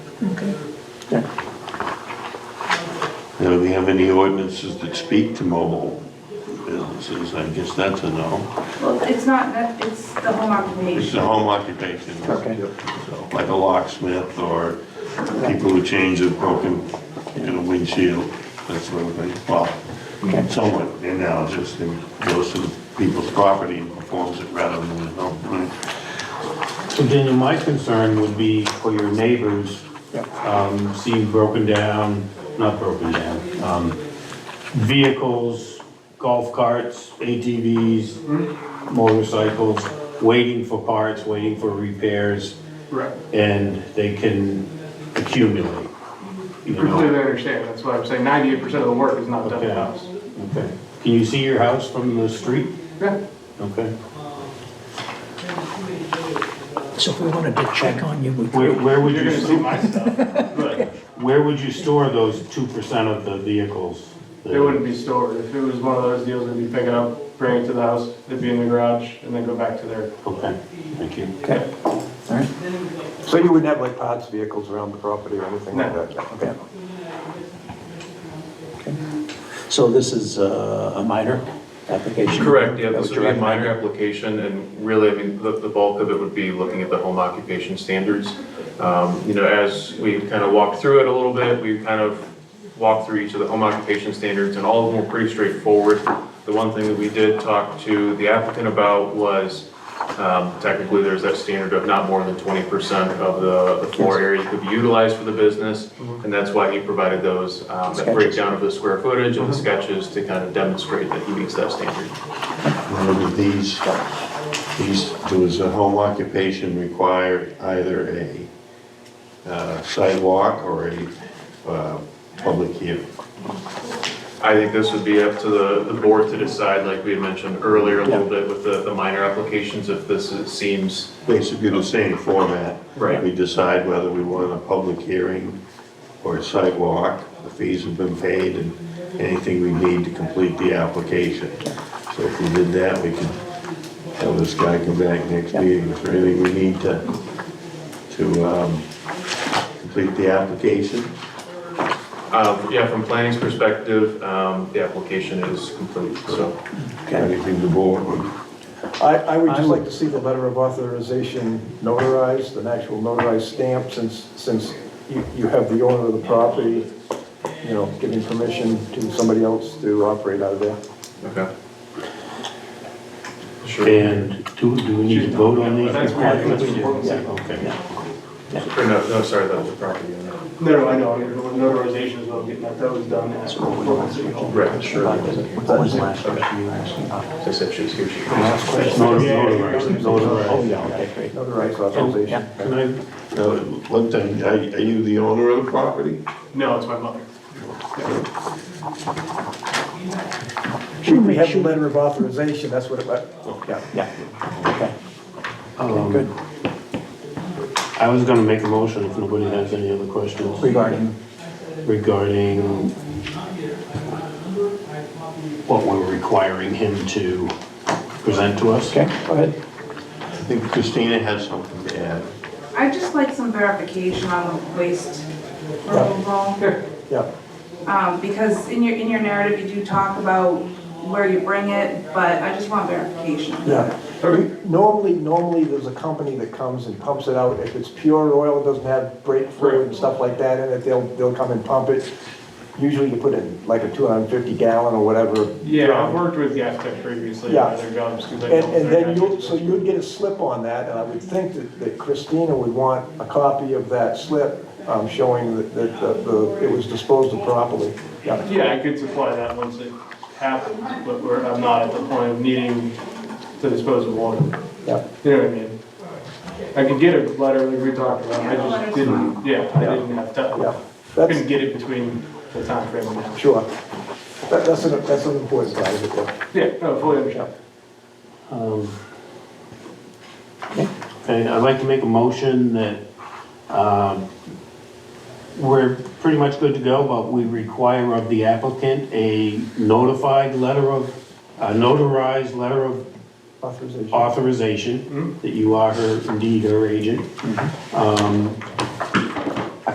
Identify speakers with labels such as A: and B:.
A: Okay.
B: Now, do we have any ordinances that speak to mobile businesses? I guess that's a no.
C: Well, it's not, that- it's the home
B: It's
C: occupation.
B: a home occupation.
A: Okay.
B: So, Like a locksmith or people who change a broken, you know, windshield, that sort of thing. Well, someone analogous, they goes to people's property and performs it rather than the home.
D: So Daniel, my concern would be for your neighbors, um, seeing broken down, not broken down, um, vehicles, golf carts, ATVs, motorcycles, waiting for parts, waiting for repairs,
E: Right.
D: and they can accumulate, you know?
E: Completely understand, that's why I'm saying ninety-eight percent of the work is not done in the
D: Okay.
E: house.
D: Okay. Can you see your house from the street?
E: Yeah.
D: Okay.
A: So if we wanted to check on you, we
D: Where,
A: could.
D: where would
E: You're
D: you,
E: gonna see
D: sto-
E: my stuff.
D: where would you store those two percent of the vehicles?
E: They wouldn't be stored. If it was one of those deals, they'd be picking up, bring it to the house, they'd be in the garage, and then go back to their.
D: Okay, thank you.
A: Okay, all right.
F: So you wouldn't have like parts vehicles around the property or anything like
E: No.
F: that?
A: Okay. Okay. So this is uh, a minor application?
G: Correct, yeah,
A: That
G: this
A: was
G: would be a
A: direct-
G: minor application, and really, I mean, the, the bulk of it would be looking at the home occupation standards. Um, you know, as we kind of walked through it a little bit, we kind of walked through each of the home occupation standards, and all of them were pretty straightforward. The one thing that we did talk to the applicant about was, um, technically, there's that standard of not more than twenty percent of the, the floor area could be utilized for the business, and that's why he provided those, um,
A: Mm-hmm. Sketches.
G: that
A: Mm-hmm.
G: breakdown of the square footage and the sketches to kind of demonstrate that he meets that standard.
B: Remember these, these, does a home occupation require either a uh, sidewalk or a uh, public hearing?
G: I think this would be up to the, the board to decide, like we had mentioned earlier a little bit with the, the minor applications, if this is- seems.
B: Basically the same format.
G: Right.
B: We decide whether we want a public hearing or a sidewalk. The fees have been paid and anything we need to complete the application. So if we did that, we could have this guy come back next meeting. Is there anything we need to, to um, complete the application?
G: Uh, yeah, from planning's perspective, um, the application is complete, so.
A: Okay.
B: Anything the board would
F: I, I would just like to see the letter of authorization notarized, an actual notarized stamp, since, since you, you have the owner of the property, you know, giving permission to somebody else to operate out of there.
G: Okay. Sure.
D: And do, do we need to vote on these?
E: That's where I think
D: requirements?
E: it's important.
D: Okay.
G: Or no, no, sorry, that was the property owner.
E: No, no, I know, notarization is what I'm getting at, that was done at Portland City Hall.
G: Right, sure.
A: What was the last question you were asking about?
G: As I said, she was here, she was.
D: Notarized,
A: Oh,
D: notarized.
A: yeah, okay, great.
F: Notarized authorization.
D: Can I,
B: Now, uh, one thing, are, are you the owner of the property?
E: No, it's my mother.
F: Should we have a letter of authorization, that's what it, yeah.
A: Yeah, okay. Okay, good.
D: I was gonna make a motion if nobody has any other questions
A: Regarding,
D: regarding what we're requiring him to present to us.
A: okay, go ahead.
B: I think Christina has something to add.
C: I'd just like some verification on the waste removal.
F: Yeah,
C: Um, because in your, in your narrative, you do talk about where you bring it, but I just want verification.
F: yeah. Normally, normally, there's a company that comes and pumps it out. If it's pure oil, doesn't have brake fluid and stuff like that in it, they'll, they'll come and pump it. Usually you put in like a 250 gallon or whatever.
E: Yeah, I've
F: drum.
E: worked with Gas Tech previously,
F: Yeah.
E: at their jobs, because I
F: And,
E: dealt with
F: and
E: their
F: then
E: guys.
F: you'll, so you'd get a slip on that, and I would think that that Christina would want a copy of that slip um, showing that, that the- the, it was disposed of properly. Yeah.
E: Yeah, I could supply that once it happens, but we're, I'm not at the point of needing to dispose of water.
F: Yeah.
E: You know what I mean? I could get a letter like we talked about, I
C: Yeah, the letter's
E: just didn't, yeah, I
F: Yeah.
E: didn't have time.
F: Yeah,
E: Couldn't
F: that's,
E: get it between the time frame and now.
F: sure. That, that's an, that's an important side of it, though.
E: Yeah, no, fully understand.
D: Um, Okay, I'd like to make a motion that um, we're pretty much good to go, but we require of the applicant a notified letter of, a notarized letter of
F: authorization.
D: authorization that you are her, indeed her agent. Um,